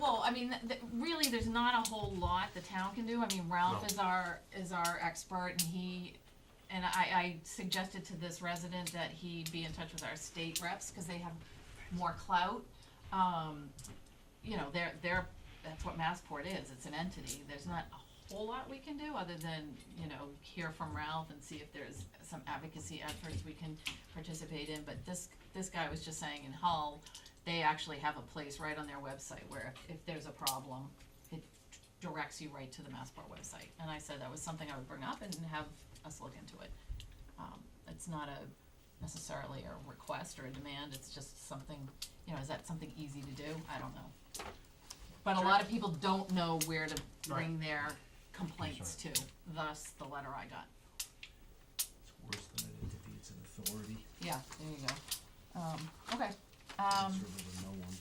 Oh, I mean, th- th- really, there's not a whole lot the town can do. I mean, Ralph No. is our, is our expert and he, and I, I suggested to this resident that he be in touch with our state reps, cause they have more clout. Um, you know, they're, they're, that's what Massport is. It's an entity. There's not a whole lot we can do other than, you know, hear from Ralph and see if there's some advocacy efforts we can participate in. But this, this guy was just saying in Hull, they actually have a place right on their website where if, if there's a problem, it directs you right to the Massport website. And I said that was something I would bring up and have us look into it. Um, it's not a necessarily a request or a demand, it's just something, you know, is that something easy to do? I don't know. But a lot of people don't know where to bring their complaints to, thus the letter I got. It's worse than an entity, it's an authority. Yeah, there you go. Um, okay, um. It's sort of a no one.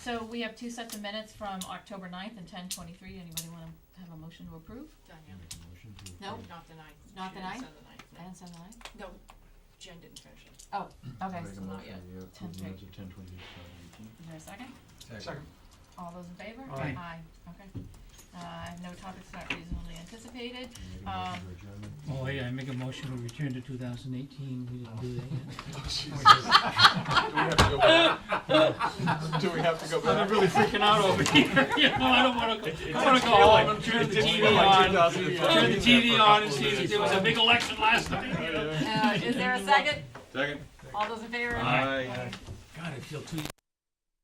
So we have two sets of minutes from October ninth and ten twenty-three, anybody wanna have a motion to approve? Danielle, Make a motion to No. approve. not the ninth. Not Eh. the She didn't ninth? send the ninth, I didn't send mine. no. No, Jen didn't finish it. Okay, Make so a not motion yet. to approve Ten the minutes of ten twenty, Is there a second? Second. All those in favor? Aye. okay. Uh, no topics not reasonably anticipated, Make a motion Um, to adjourn. Oh, yeah, I make a motion to return to two thousand eighteen, we didn't do that yet. Do we have to go back? I'm really freaking out over here, you know, I don't wanna go, I wanna go home, turn the TV on, turn the TV on and see, there was a big election last night, you know? uh, Um, is there a second? Second. All those in favor? Aye. Aye. God, I feel too,